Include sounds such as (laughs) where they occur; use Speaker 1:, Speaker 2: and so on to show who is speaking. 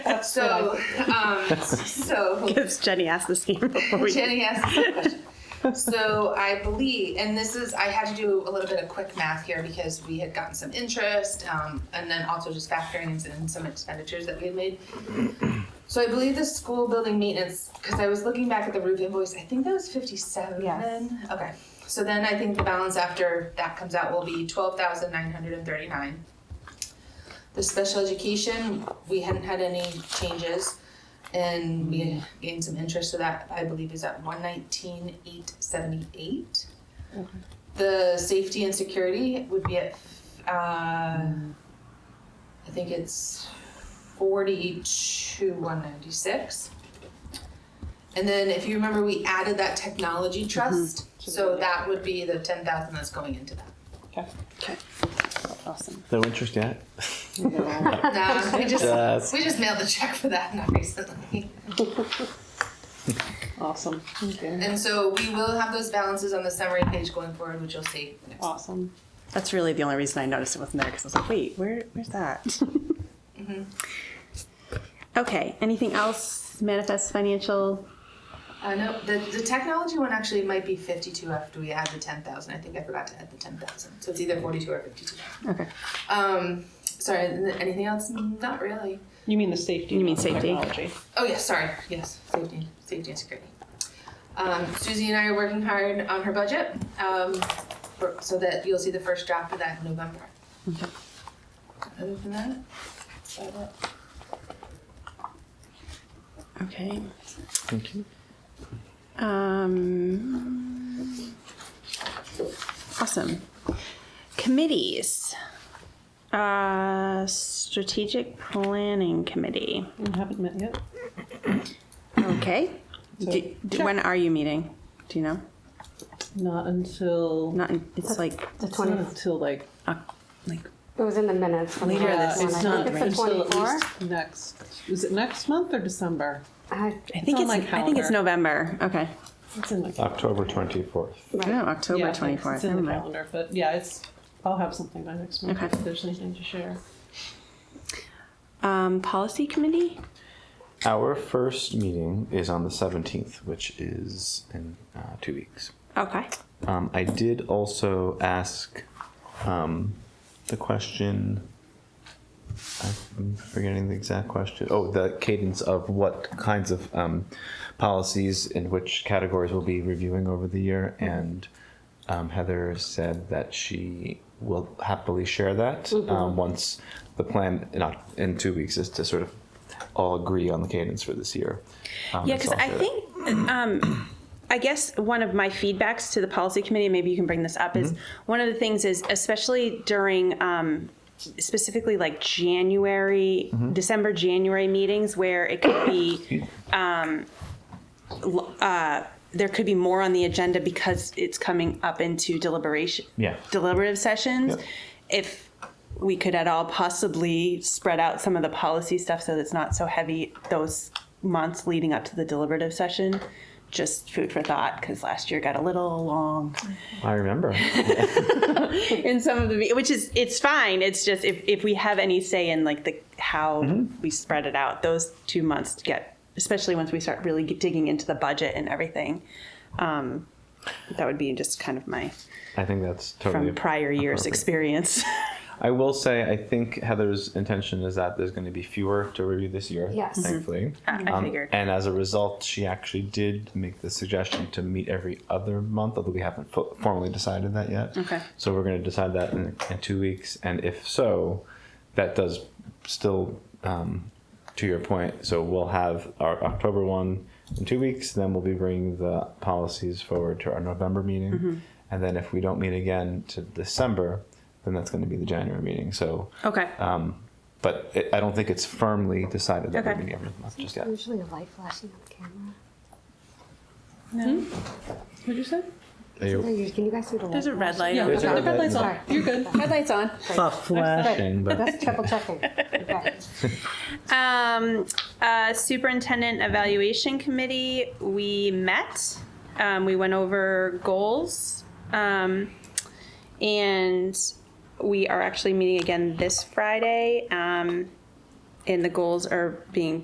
Speaker 1: That's what I
Speaker 2: So, (laughs) um, so
Speaker 1: (laughs) Because Jenny asked the same before we.
Speaker 2: Jenny asked this question. So I believe, and this is, I had to do a little bit of quick math here because we had gotten some interest, um, and then also just factorings and some expenditures that we had made. So I believe the school building maintenance, because I was looking back at the roof invoice, I think that was fifty-seven.
Speaker 3: Yes.
Speaker 2: Okay, so then I think the balance after that comes out will be twelve thousand nine hundred and thirty-nine. The special education, we hadn't had any changes. And we gained some interest, so that I believe is at one nineteen eight seventy eight. The safety and security would be at, uh, I think it's forty two one ninety six. And then if you remember, we added that technology trust, so that would be the ten thousand that's going into that.
Speaker 1: Okay. Awesome.
Speaker 4: No interest yet?
Speaker 2: Nah, we
Speaker 4: Yes.
Speaker 2: just, we just mailed the check for that not recently.
Speaker 3: Awesome. Okay.
Speaker 2: And so we will have those balances on the summary page going forward, which you'll see next.
Speaker 3: Awesome.
Speaker 1: That's really the only reason I noticed it wasn't there because I was like, wait, where, where's
Speaker 3: (laughs)
Speaker 1: that? Mm-hmm. Okay. Anything else? Manifest financial.
Speaker 2: Uh, no, the, the technology one actually might be fifty-two after we add the ten thousand. I think I forgot to add the ten thousand, so it's either forty-two or fifty-two.
Speaker 1: Okay.
Speaker 2: Um, sorry, n- anything else? Not really.
Speaker 3: You mean the safety?
Speaker 1: You mean
Speaker 3: not
Speaker 1: safety.
Speaker 3: Technology.
Speaker 2: Oh yes, sorry. Yes, safety, safety and security. Um, Susie and I are working hard on her budget, um, for- so that you'll see the first draft of that in November.
Speaker 1: Okay.
Speaker 2: Other than that, is that it?
Speaker 1: Okay.
Speaker 4: Thank you.
Speaker 1: Um, awesome. Committees. Uh, strategic planning committee.
Speaker 3: We haven't met yet. (clears throat)
Speaker 1: Okay. Do- do- when are you meeting? Do you know?
Speaker 3: Not until.
Speaker 1: Not. In, it's like
Speaker 5: The
Speaker 3: it's not
Speaker 5: 20th.
Speaker 3: until like. uh,
Speaker 1: Oc- like
Speaker 5: It was in the minutes. from
Speaker 1: Later
Speaker 5: the
Speaker 1: this
Speaker 5: last one.
Speaker 3: it's
Speaker 5: I
Speaker 3: not
Speaker 5: think it's the
Speaker 3: until at
Speaker 5: 24.
Speaker 3: least next. Is it next month or December?
Speaker 5: I-
Speaker 1: I think
Speaker 3: on
Speaker 1: it's.
Speaker 3: my
Speaker 1: I think it's
Speaker 3: calendar.
Speaker 1: November. Okay.
Speaker 3: It's in my
Speaker 4: October 24th.
Speaker 1: No,
Speaker 5: Right.
Speaker 1: October
Speaker 3: yeah,
Speaker 1: twenty
Speaker 3: It's
Speaker 1: fourth.
Speaker 3: in
Speaker 1: Never
Speaker 3: the
Speaker 1: mind.
Speaker 3: calendar, but yeah, it's. I'll have something by next month
Speaker 1: Okay.
Speaker 3: if there's anything to share.
Speaker 1: Um, policy committee.
Speaker 4: Our first meeting is on the 17th, which is in uh, two weeks.
Speaker 1: Okay.
Speaker 4: Um, I did also ask um, the question. I'm forgetting the exact question. Oh, the cadence of what kinds of um, policies and which categories we'll be reviewing over the year. And um, Heather said that she will happily share that
Speaker 1: Mm-hmm.
Speaker 4: um, once the plan in, Oc- in two weeks is to sort of all agree on the cadence for this year. Um,
Speaker 1: Yeah,
Speaker 4: and so
Speaker 1: because
Speaker 4: I'll
Speaker 1: I
Speaker 4: share that.
Speaker 1: think, um, I guess one of my feedbacks to the policy committee, maybe you can bring this up, is one of the things is especially during, um, specifically like January, December, January meetings where it could be, um, l- uh, there could be more on the agenda because it's coming up into deliberation,
Speaker 4: Yeah.
Speaker 1: deliberative sessions.
Speaker 4: Yep.
Speaker 1: If we could at all possibly spread out some of the policy stuff so that it's not so heavy those months leading up to the deliberative session. Just food for thought because last year got a little long
Speaker 4: I remember.
Speaker 1: in some of the which is it's fine. It's just if if we have any say in like the how we spread it out, those two months get especially once we start really digging into the budget and everything. Um, that would be just kind of my
Speaker 4: I think that's totally
Speaker 1: from prior year's
Speaker 4: appropriate.
Speaker 1: experience.
Speaker 4: I will say, I think Heather's intention is that there's going to be fewer to review this year.
Speaker 5: Yes. Mhm.
Speaker 4: Thankfully.
Speaker 1: (laughs) I- I figured.
Speaker 4: Um, And as a result, she actually did make the suggestion to meet every other month, although we haven't fo- formally decided that yet.
Speaker 1: Okay.
Speaker 4: So we're going to decide that in, in two weeks. And if so, that does still, um, to your point, so we'll have our October one in two weeks, then we'll be bringing the policies forward to our November meeting.
Speaker 1: Mm-hmm.
Speaker 4: And then if we don't meet again to December, then that's going to be the January meeting. So,
Speaker 1: okay.
Speaker 4: um, but it, I don't think it's firmly decided that we're
Speaker 1: Okay.
Speaker 4: meeting every month just yet.
Speaker 5: Usually a light flashing on the camera.
Speaker 3: What'd you say?
Speaker 4: Are you-
Speaker 5: Can you- Can you guys see the light?
Speaker 1: There's a red light.
Speaker 3: Yeah,
Speaker 4: There's a
Speaker 3: the red light's on.
Speaker 5: Sorry.
Speaker 3: You're good. Red light's on.
Speaker 4: Dang, but-
Speaker 5: That's triple checking.
Speaker 1: (laughs)
Speaker 5: Okay.
Speaker 1: Um, uh, superintendent evaluation committee, we met, um, we went over goals. Um, and we are actually meeting again this Friday. Um, and the goals are being